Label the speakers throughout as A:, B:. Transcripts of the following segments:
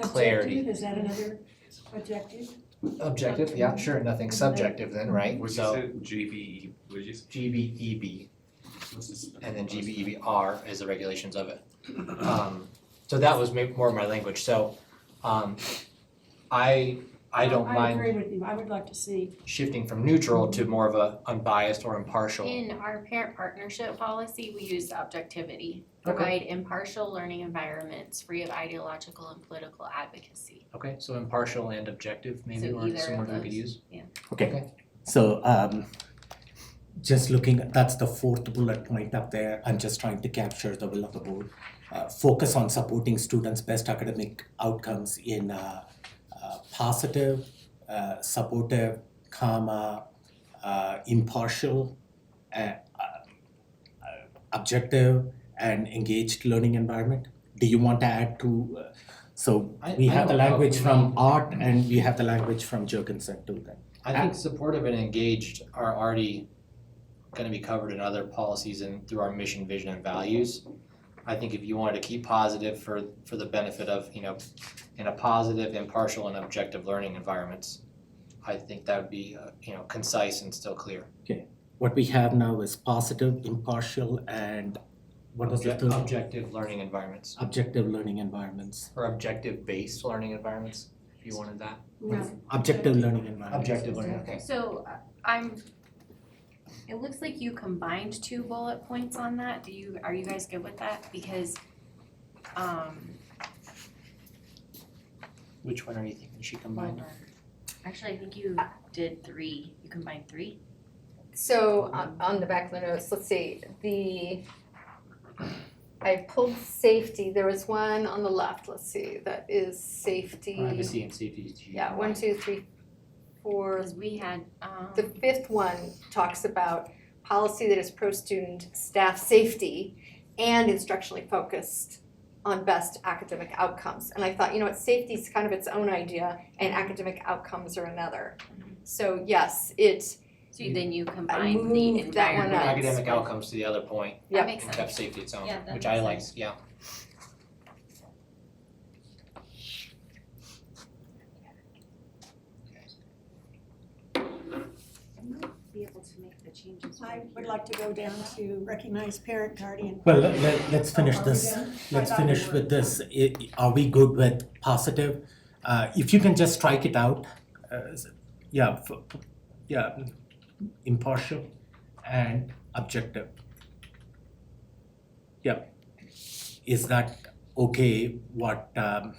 A: clarity.
B: Objective, is that another objective?
A: Objective, yeah, sure, nothing subjective then, right?
C: What'd you
A: So
C: say, GBE, what'd you say?
A: GBEB
C: What's this?
A: and then GBEBR is the regulations of it. Um, so that was maybe more my language, so, um, I, I don't
B: I
A: mind
B: agree with you, I would like to see,
A: shifting from neutral to more of a unbiased or impartial.
D: In our parent partnership policy, we use objectivity.
A: Okay.
D: Provide impartial learning environments free of ideological and political advocacy.
A: Okay, so impartial and objective maybe
D: So
A: or
D: either of
A: someone we could
D: those.
A: use.
E: Okay, so um just looking, that's the fourth bullet point up there, I'm just trying to capture the will of the board. Uh focus on supporting students' best academic outcomes in uh uh positive, uh supportive, comma, uh impartial, uh uh, uh, objective and engaged learning environment. Do you want to add to, uh, so
A: I-
E: we
A: I
E: have the
A: don't know if
E: language
A: we
E: from
A: need-
E: Art and we have the language from Jorgensen too then.
A: I think supportive and engaged are already gonna be covered in other policies and through our mission, vision, and values. I think if you wanted to keep positive for, for the benefit of, you know, in a positive, impartial, and objective learning environments, I think that would be, uh, you know, concise and still clear.
E: what we have now is positive, impartial, and what was the
A: Object-
E: third?
A: Objective learning environments,
E: Objective learning environments.
A: or objective-based learning environments, if you wanted that.
B: no,
E: Uh, Objective learning environments.
A: Objective learning, okay.
D: So uh, I'm, it looks like you combined two bullet points on that. Do you, are you guys good with that? Because, um,
A: Which one are you thinking she combined?
D: well, actually, I think you did three. You combined three?
F: So on, on the back of the notes, let's see, the, I pulled safety, there was one on the left, let's see, that is safety.
A: Privacy and safety. did you
F: Yeah, one,
A: combine?
F: two, three, four,
D: Because we had, um,
F: the fifth one talks about policy that is pro-student staff safety and instructionally focused on best academic outcomes. And I thought, you know what, safety's kind of its own idea and academic outcomes are another. So yes, it,
D: so then you combined the
F: moved that one uh,
D: environment.
A: Bring
F: up.
A: Academic outcomes to the other point.
D: That
F: Yep.
D: makes
A: and
D: sense.
A: kept safety its own,
D: Yeah, that
A: which I
D: makes
A: like, yeah.
D: be able to make the changes.
B: I would like to go down to recognize parent guardian.
E: Well, let, let, let's finish
B: Are we
E: this,
B: done?
E: let's
B: I thought we
E: finish
B: were.
E: with this, I- i- are we good with positive? Uh, if you can just strike it out, uh, s- yeah, f- f- yeah, impartial and objective. Yeah, is that okay, what, um,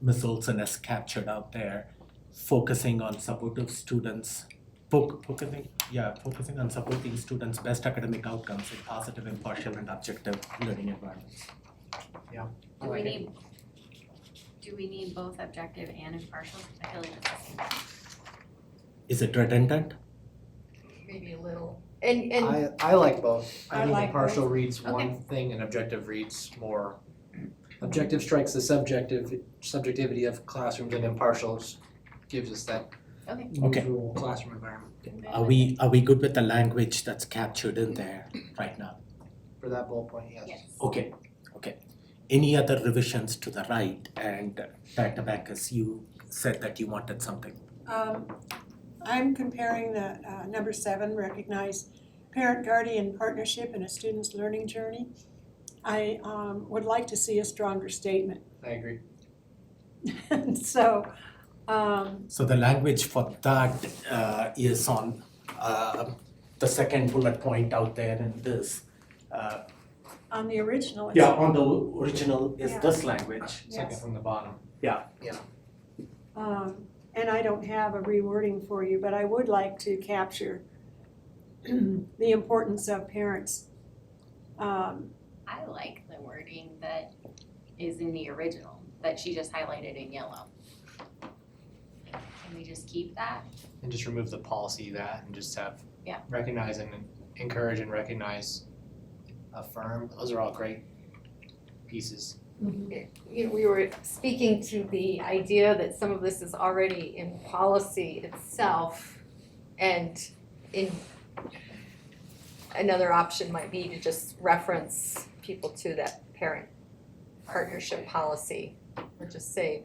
E: Ms. Olson has captured out there, focusing on supportive students, foc- focusing, yeah, focusing on supporting students' best academic outcomes in positive, impartial, and objective learning environments.
D: Do
E: Oh,
D: we need, do we need both objective and impartial? I feel like that's the same.
E: Is it redundant?
F: maybe a little, and, and
A: I, I like both.
B: I
A: I think
B: like
A: impartial reads
D: Okay.
A: one thing and objective reads more. Objective strikes the subjective, subjectivity of classrooms and impartials gives us that
D: Okay.
E: Okay.
A: neutral classroom environment
E: Are we, are we good with the language that's captured in there right now?
A: for that bullet point, yes.
D: Yes.
E: Okay, okay. Any other revisions to the right? And uh, Dr. Backus, you said that you wanted something.
B: Um, I'm comparing the, uh, number seven, recognize parent guardian partnership in a student's learning journey. I, um, would like to see a stronger statement.
A: I agree.
B: So, um,
E: So the language for that uh is on uh the second bullet point out there in this. Uh
B: on the original, it's-
E: yeah, on the original is
B: Yeah.
E: this language.
A: Second
B: Yes.
A: from the bottom.
B: Um, and I don't have a rewording for you, but I would like to capture the importance of parents. Um,
D: I like the wording that is in the original, that she just highlighted in yellow. Can we just keep that?
A: And just remove the policy that and just have.
D: Yeah.
A: Recognize and encourage and recognize, affirm, those are all great pieces.
F: you know, we were speaking to the idea that some of this is already in policy itself. And in, another option might be to just reference people to that parent partnership policy or just say